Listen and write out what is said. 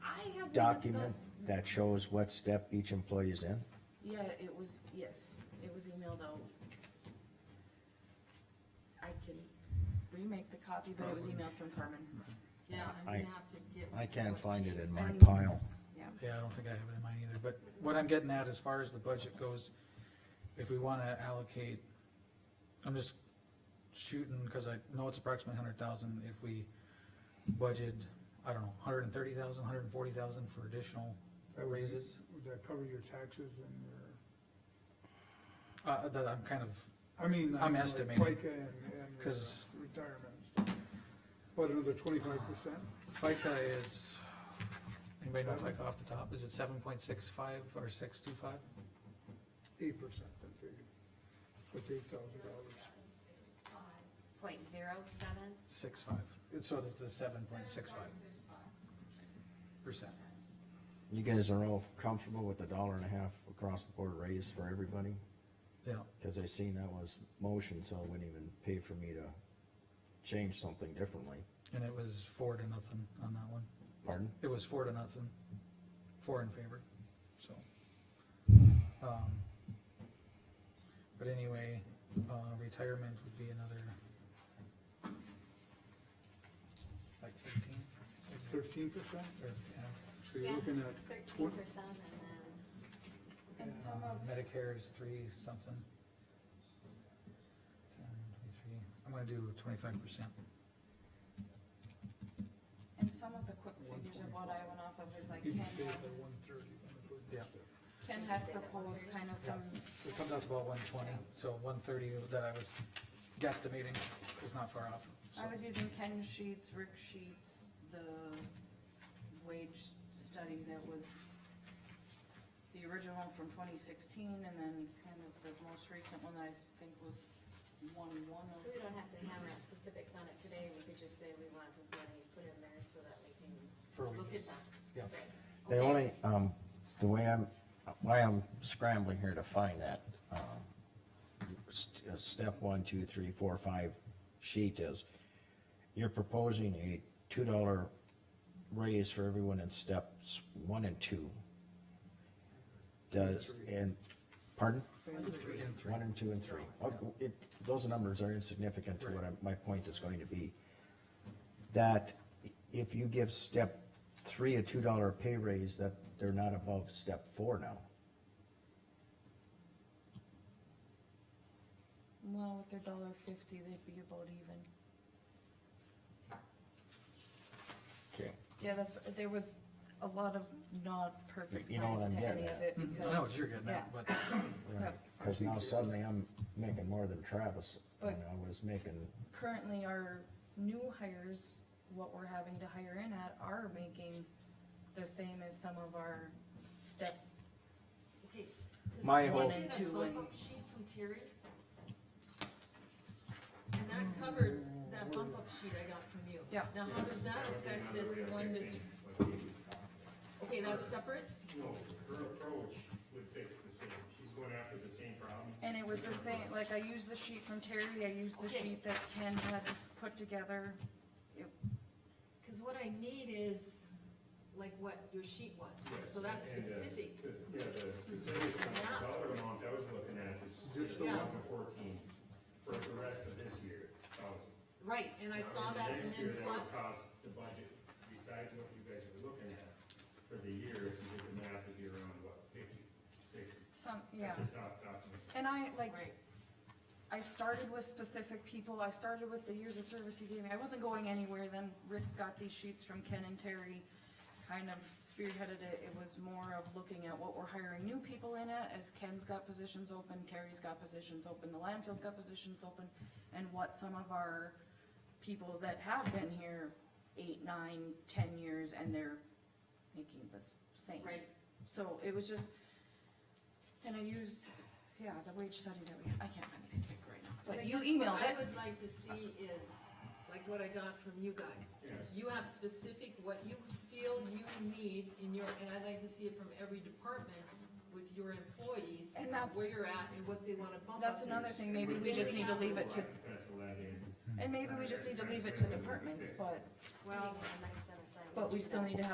have one that's document not- that shows what step each employee is in? Yeah, it was, yes, it was emailed out. I can remake the copy, but it was emailed from Carmen. Yeah, I'm I- gonna have to get. I can't what find it in my changes. pile. Yeah, Yeah, I don't think I have it in mine either, but what I'm getting at as far as the budget goes, if we wanna allocate, I'm just shooting, cause I know it's approximately hundred thousand, if we budget, I don't know, hundred and thirty thousand, hundred and forty thousand for additional That would be- raises. Would that cover your taxes and your, Uh, that I'm kind of, I mean. I'm like estimating. FICA and, and your 'Cause- retirement. and stuff. What, another twenty-five percent? FICA is, anybody know FICA off the top, is it seven point six five or six two five? Eight percent, I figured. That's eight thousand dollars. Point zero seven, Six five, It's- so this is seven point six five percent. You guys are all comfortable with the dollar and a half across the board raise for everybody? Yeah, Cause I seen that was motion, so it wouldn't even pay for me to change something differently. and it was four to nothing on that one. Pardon? It was four to nothing, four in favor, so. um, But anyway, uh, retirement would be another. Like fifteen? Thirteen percent? or, yeah. So you're Yeah, looking at thirteen twenty, percent and then And Uh, some of, Medicare is three something. 10, 23. I'm gonna do twenty-five percent. and some of the quick figures of what I went off of is like you Ken, can save had- the one thirty. Yeah. Ken has proposed kind of some, It comes out to about one twenty, so one thirty that I was guesstimating was not far off. so. I was using Ken sheets, Rick sheets, the wage study that was the original one from twenty sixteen, and then kind of the most recent one that I s- think was one one so we don't have to hammer out specifics on it today, we could just say we want this money put in there so that we can For look at wages, that. yeah. Right. The only, um, the way I'm, why I'm scrambling here to find that, um, st- uh, step one, two, three, four, five sheet is, you're proposing a two dollar raise for everyone in steps one and two. Does, and, pardon? And three. One and two and three. Okay, It, those numbers are insignificant to what I, my point is going to be. That if you give step three a two dollar pay raise, that they're not above step four now. Well, with their dollar fifty, they'd be about even. Okay. Yeah, that's, there was a lot of not perfect You know what science I'm to getting any of at. it Mhm, because. I know what you're getting yeah. at, but Yep. Cause now suddenly I'm making more than Travis, and But- I was making, Currently, our new hires, what we're having to hire in at, are making the same as some of our step. okay. does My anyone whole- see that Two and- bump-up sheet from Terry? And that covered that bump up sheet I got from you. Yeah. Now, how does that affect this one that you? Okay, that's separate? No, her approach would fix the same, she's going after the same problem. And it was the same, like, I used the sheet from Terry, I used the Okay. sheet that Ken had put together. It- Cause what I need is like what your sheet was, so that's And, uh, specific. the- Yeah, the specific dollar amount I was looking at is Just just the one. eleven fourteen for the rest of this year, thousand. Right, and I saw that and Next year, then that would plus, Cost the budget, besides what you guys are looking at for the year, if you did the math, it'd be around what, fifty, sixty? Some, yeah. Just off the top of my head. And I, like, right, I started with specific people, I started with the years of service he gave me, I wasn't going anywhere, then Rick got these sheets from Ken and Terry, kind of spearheaded it, it was more of looking at what we're hiring new people in at, as Ken's got positions open, Terry's got positions open, the landfill's got positions open, and what some of our people that have been here eight, nine, ten years, and they're making the same. right. So it was just, and I used, yeah, the wage study that we, I can't find the piece of paper right now, I but you guess what emailed I it. would like to see is, like what I got from you guys. Yeah. You have specific, what you feel you need in your, and I'd like to see it from every department with your employees. And that's- Where you're at and what they wanna bump up. That's another thing, maybe we just need to leave it to, Pencil that in. and maybe we just need to leave it to departments, but, We Well, need to have money set aside. but we do still that. need to have